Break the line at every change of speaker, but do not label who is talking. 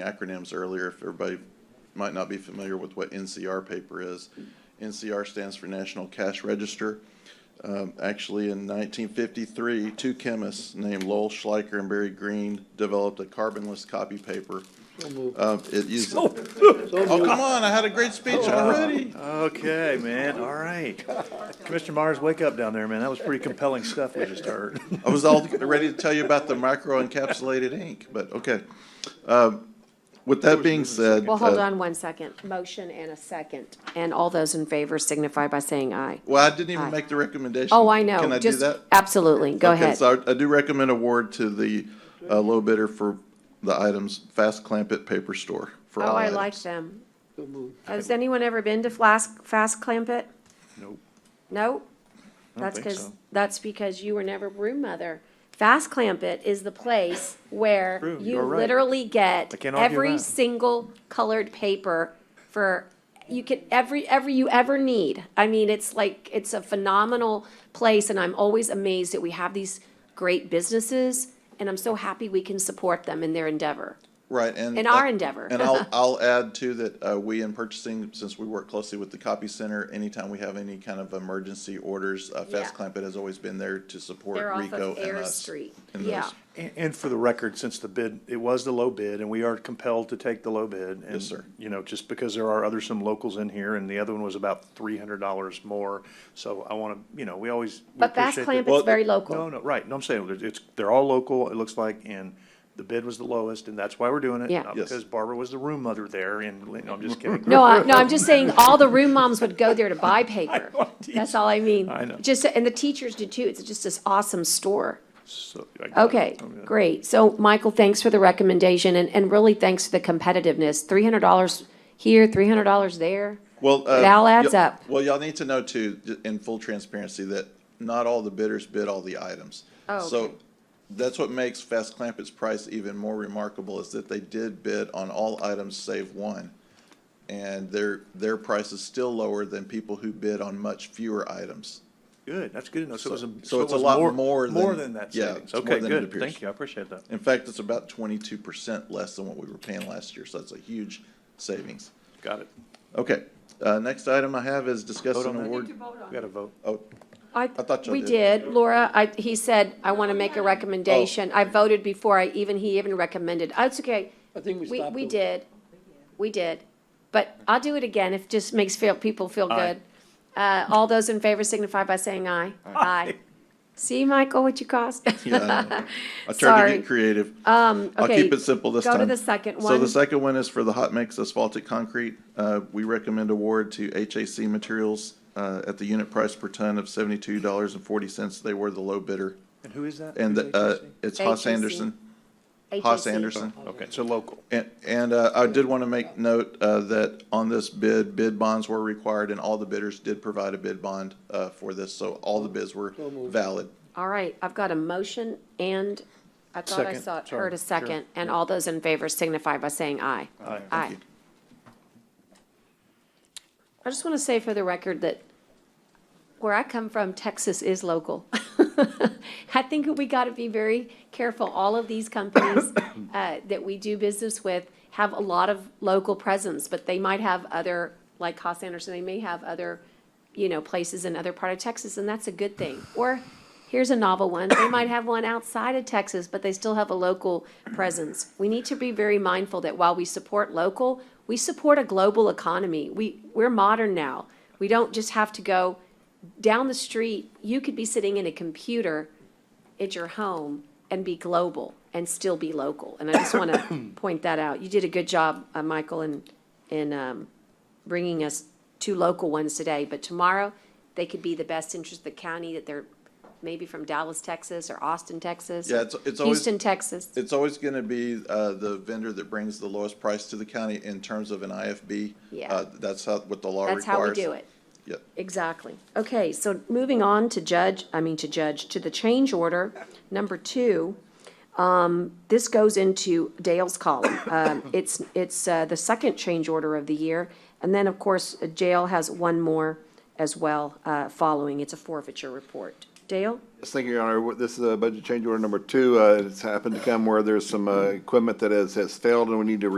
acronyms earlier, if everybody might not be familiar with what NCR paper is. NCR stands for National Cash Register. Um, Actually, in 1953, two chemists named Lowell Schleicher and Barry Green developed a carbonless copy paper. Uh, It uses, oh, come on, I had a great speech Uh, already.
Okay, man, all right. Commissioner Myers, wake up down there, man. That was pretty compelling stuff we just heard.
I was all ready to tell you about the micro encapsulated ink, but okay. Um, With that being said.
Well, hold
uh,
on one second. Motion and a second. And all those in favor signify by saying aye.
Well, I didn't even
Aye.
make the recommendation.
Oh, I know.
Can I do
Just-
that?
Absolutely. Go
Okay,
ahead.
So I- I do recommend award to the uh, low bidder for the items, Fast Clampett Paper Store for
Oh,
all
I
items.
like them. Has anyone ever been to Flask, Fast Clampett?
Nope.
No?
I don't
That's
think
because,
so.
that's because you were never room mother. Fast Clampett is the place where
True,
you
you're right.
literally
I
get
can't argue
every
that.
single colored paper for, you can, every, every you ever need. I mean, it's like, it's a phenomenal place and I'm always amazed that we have these great businesses and I'm so happy we can support them in their endeavor.
Right, and.
In our endeavor.
And I'll, I'll add too that uh, we in purchasing, since we work closely with the copy center, anytime we have any kind of emergency orders, uh, Fast
Yeah.
Clampett has always been there to support
They're off
Rico
of
and
Air
us.
Street.
in
Yeah.
those.
And, and for the record, since the bid, it was the low bid, and we are compelled to take the low bid. and,
Yes, sir.
You know, just because there are other, some locals in here, and the other one was about three hundred dollars more. So I want to, you know, we always. we
But
appreciate
Bass
that-
Clamp is
Well,
very local.
No, no, right. No, I'm saying, there's- it's, they're all local, it looks like, and the bid was the lowest, and that's why we're doing it.
Yeah.
Not
Yes.
because Barbara was the room mother there, and, you know, I'm just kidding.
No, I, no, I'm just saying all the room moms would go there to buy paper. That's all I mean.
I know.
Just, and the teachers do too. It's just this awesome store.
So, I got it.
Okay,
Oh, yeah.
great. So, Michael, thanks for the recommendation and, and really thanks for the competitiveness. Three hundred dollars here, three hundred dollars there.
Well, uh,
It all adds
y'all-
up.
Well, y'all need to know too, j- in full transparency, that not all the bidders bid all the items.
Oh,
So
okay.
that's what makes Fast Clampett's price even more remarkable is that they did bid on all items save one. And their, their price is still lower than people who bid on much fewer items.
Good, that's good enough. So it was, a-
so
so it
it's a
was
lot
more,
more than-
more than that
yeah,
savings.
it's more
Okay,
than it
good.
appears.
Thank you, I appreciate that.
In fact, it's about twenty-two percent less than what we were paying last year, so that's a huge savings.
Got it.
Okay, uh, next item I have is discuss
Vote
an
on that?
award.
We got a vote.
Oh,
I,
thought y'all
we
did.
did. Laura, I, he said, I want to make a
Oh.
recommendation. I voted before I even, he even recommended. Oh, It's okay.
I think we
We,
stopped.
we
them.
did. We did. But I'll do it again if just makes feel, people feel
Aye.
good. Uh, all those in favor signify by saying aye. Aye. See, Michael, what you cost?
yeah, I know. I tried to
Sorry.
get creative.
Um,
I'll
okay,
keep it simple this
go
time.
to the second
So the
one.
second one is for the hot mix asphaltic concrete. Uh, we recommend award to HAC Materials, uh, at the unit price per ton of seventy-two dollars and forty cents. They were the low bidder.
And who is that?
And,
Who's
uh,
HHC?
it's Haas
HAC.
Anderson, Haas
HAC.
Anderson.
Okay, so local.
And, and, uh, I did want to make note, uh, that on this bid, bid bonds were required and all the bidders did provide a bid bond, uh, for this. So all the bids were valid.
All right, I've got a motion and I thought I
Second,
saw,
sorry,
heard a
sure.
second. And all those in favor signify by saying aye.
Aye.
Aye. I just want to say for the record that where I come from, Texas is local. I think we got to be very careful. All of these companies uh, that we do business with have a lot of local presence, but they might have other, like Haas Anderson, they may have other, you know, places in other part of Texas, and that's a good thing. Or here's a novel one. They might have one outside of Texas, but they still have a local presence. We need to be very mindful that while we support local, we support a global economy. We, we're modern now. We don't just have to go down the street. You could be sitting in a computer at your home and be global and still be local. And I just want to point that out. You did a good job, uh, Michael, in, in, um, bringing us two local ones today, but tomorrow they could be the best interest of the county that they're maybe from Dallas, Texas or Austin, Texas.
Yeah,
or
it's- it's always-
Houston, Texas.
It's always going to be uh, the vendor that brings the lowest price to the county in terms of an IFB.
Yeah.
Uh, That's how, what the law requires.
That's how we do it.
Yep.
Exactly. Okay, so moving on to judge, I mean to judge, to the change order, number two. Um, this goes into Dale's column. Um, it's, it's, uh, the second change order of the year. And then, of course, jail has one more as well, uh, following. It's a forfeiture report. Dale?
Yes, thank you, Your Honor. This is uh budget change order number two. Uh, It's happened to come where there's some uh, equipment that has, has failed and we need to